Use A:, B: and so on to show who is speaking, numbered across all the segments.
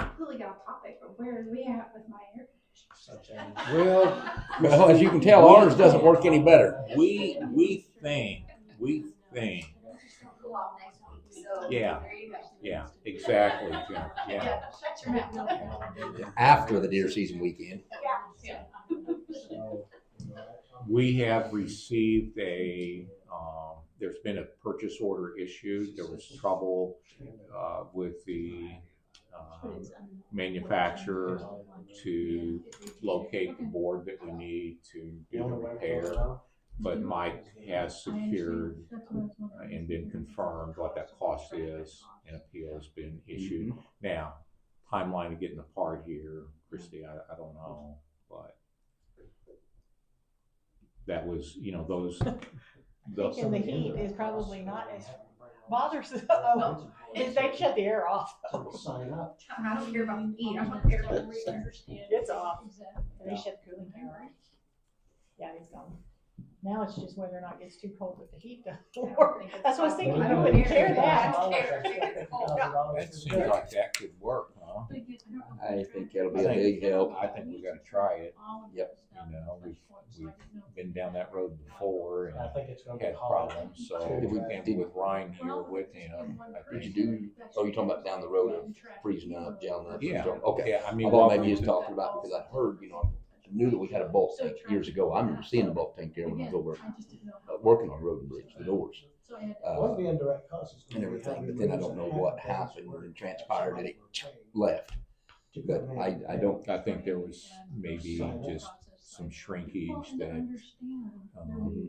A: totally off topic, but where are we at with my air?
B: Well, well, as you can tell, ours doesn't work any better.
C: We, we think, we think, Yeah. yeah, exactly, Jim, yeah.
A: Shut your mouth.
B: After the deer season weekend,
C: We have received a, um, there's been a purchase order issued. There was trouble, uh, with the, um, manufacturer to locate the board that we need to do the repair. But Mike has secured uh, and been confirmed what that cost is, and appeal's been issued. Now, timeline of getting the part here, Christie, I, I don't know, but that was, you know, those, those,
D: In the heat is probably not as bothersome, oh, is they shut the air off,
E: Sign up.
A: I don't care about the heat, I don't care about the air.
D: it's off, they shut the cooling tower off. Yeah, he's gone. Now it's just whether or not it gets too cold with the heat though. That's what I was thinking,
A: I
D: I
A: don't
D: wouldn't
A: care.
D: care that.
C: that seems like that could work, huh?
B: I think that'll be
C: I
B: a
C: think-
B: big help.
C: I think we gotta try it.
B: Yep.
C: You know, we've, we've been down that road before
E: I
C: and
E: think it's gonna be
C: had
E: hot.
C: problems, so, and with Ryan here with him, I
B: Did you
C: think.
B: do? Oh, you're talking about down the road of freezing up, gelling up.
C: Yeah.
B: Okay.
C: Yeah, I mean.
B: I thought maybe you was talking about because I heard, you know, I knew that we had a bulk tank years ago. I remember seeing a bulk tank there when I was over uh, working on Road and Bridge, the doors.
E: One
B: Uh,
E: of the indirect causes.
B: and everything, but then I don't know what happened and transpired that it left. But I, I don't,
C: I think there was maybe just some shrinkage that, um,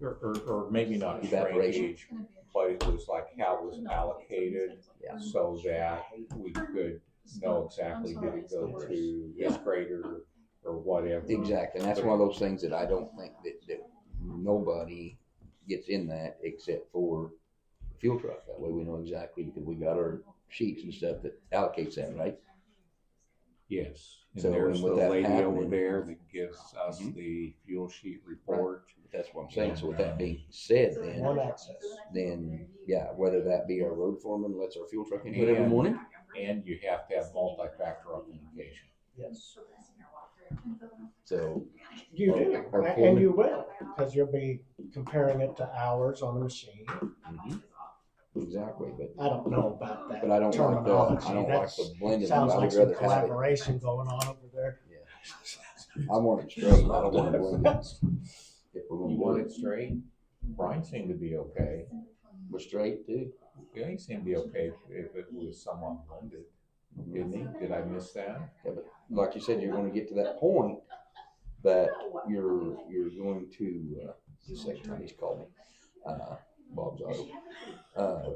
C: or, or, or maybe not
B: Evaporation.
C: shrinkage, but it was like how it was allocated
B: Yeah.
C: so that we could know exactly did it go to this grader or whatever.
B: exactly. And that's one of those things that I don't think that, that nobody gets in that except for the fuel truck. That way we know exactly because we got our sheets and stuff that allocates that, right?
C: Yes, and
B: So,
C: there's
B: and
C: the
B: with that
C: lady over
B: happening-
C: there that gives us
B: Mhm.
C: the fuel sheet report.
B: That's what I'm saying. So with that being said then,
E: One access.
B: then, yeah, whether that be our road foreman lets our fuel truck input every morning.
C: And you have to have multi-factor authentication.
E: Yes.
B: So,
E: You
B: Or-
E: do,
B: or
E: and-
B: pull
E: and
B: it.
E: you will, because you'll be comparing it to hours on the machine.
B: mhm. exactly, but
E: I don't know about that.
B: But I don't like the, I don't like
E: terminology.
B: the blended.
E: That sounds
B: I
E: like
B: would
E: some
B: rather have it.
E: collaboration going on over there.
B: I want it straight. I don't want it blended. If we're gonna
C: You
B: do
C: want
B: it,
C: it straight? Brian seemed to be okay.
B: we're straight too.
C: Yeah, he seemed to be okay if it was somewhat blended,
B: Mm-hmm.
C: didn't he? Did I miss that?
B: Yeah, but like you said, you're gonna get to that point that you're, you're going to, uh, the second time he's called me, uh, Bob's auto. Uh,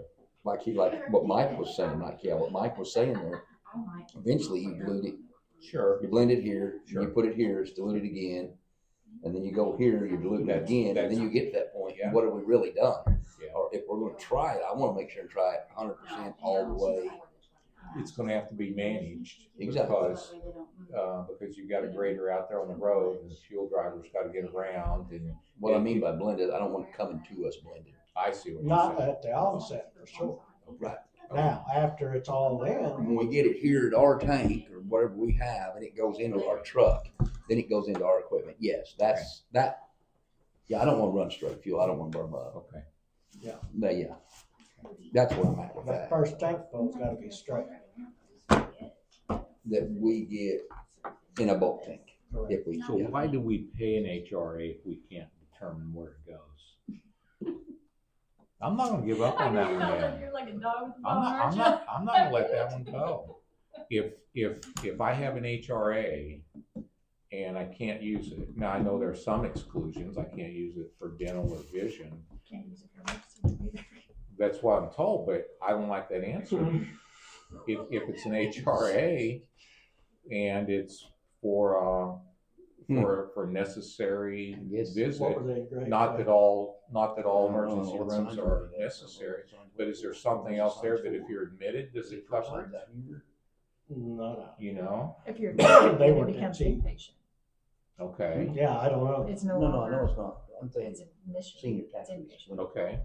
B: like he, like what Mike was saying, like, yeah, what Mike was saying there, eventually you blend it,
C: Sure.
B: you blend it here, you
C: Sure.
B: put it here, it's diluted again. And then you go here, you dilute it
C: That's-
B: again, and
C: that's-
B: then you get to that point,
C: Yeah.
B: what have we really done?
C: Yeah.
B: Or if we're gonna try it, I wanna make sure and try it hundred percent
A: Oh,
B: all the way.
C: It's gonna have to be managed
B: Exactly.
C: because, uh, because you've got a grader out there on the road and the fuel driver's gotta get around and
B: What I mean by blended, I don't want it coming to us blended.
C: I see what
E: Not
C: you're saying.
E: at the onset, for sure.
B: Right.
E: Now, after it's all in,
B: When we get it here at our tank or whatever we have, and it goes into our truck, then it goes into our equipment. Yes, that's, that, yeah, I don't wanna run straight fuel. I don't wanna burn up.
C: Okay.
B: But yeah, that's where I'm at with
E: that
B: that.
E: first tank has gotta be straight.
B: That we get in a bulk tank
E: Correct.
B: if we,
C: So why do we pay an HRA if we can't determine where it goes? I'm not gonna give up on that one, man.
F: You're like a dog with a
C: I'm
F: bone,
C: not,
F: aren't
C: I'm
F: you?
C: not, I'm not gonna let that one go. If, if, if I have an HRA and I can't use it, now I know there are some exclusions, I can't use it for dental or vision. That's what I'm told, but I don't like that answer. If, if it's an HRA and it's for, uh, for, for necessary
B: I guess-
E: Hmm. What
C: visit,
E: were they agreeing
C: not
E: to?
C: that all, not that all emergency
B: Oh, what's
C: rooms
B: under
C: are
B: that?
C: necessary, but is there something else there that if you're admitted, does it cover it?
E: No,
C: You know,
D: If you're,
E: They
D: it
E: were
D: becomes
E: busy.
D: inpatient,
C: okay,
E: no. Yeah, I don't know.
F: It's no
B: No, no, no,
F: longer,
B: it's not. I'm saying
F: it's admission,
B: senior
F: it's
B: tax.
F: inpatient.
C: okay,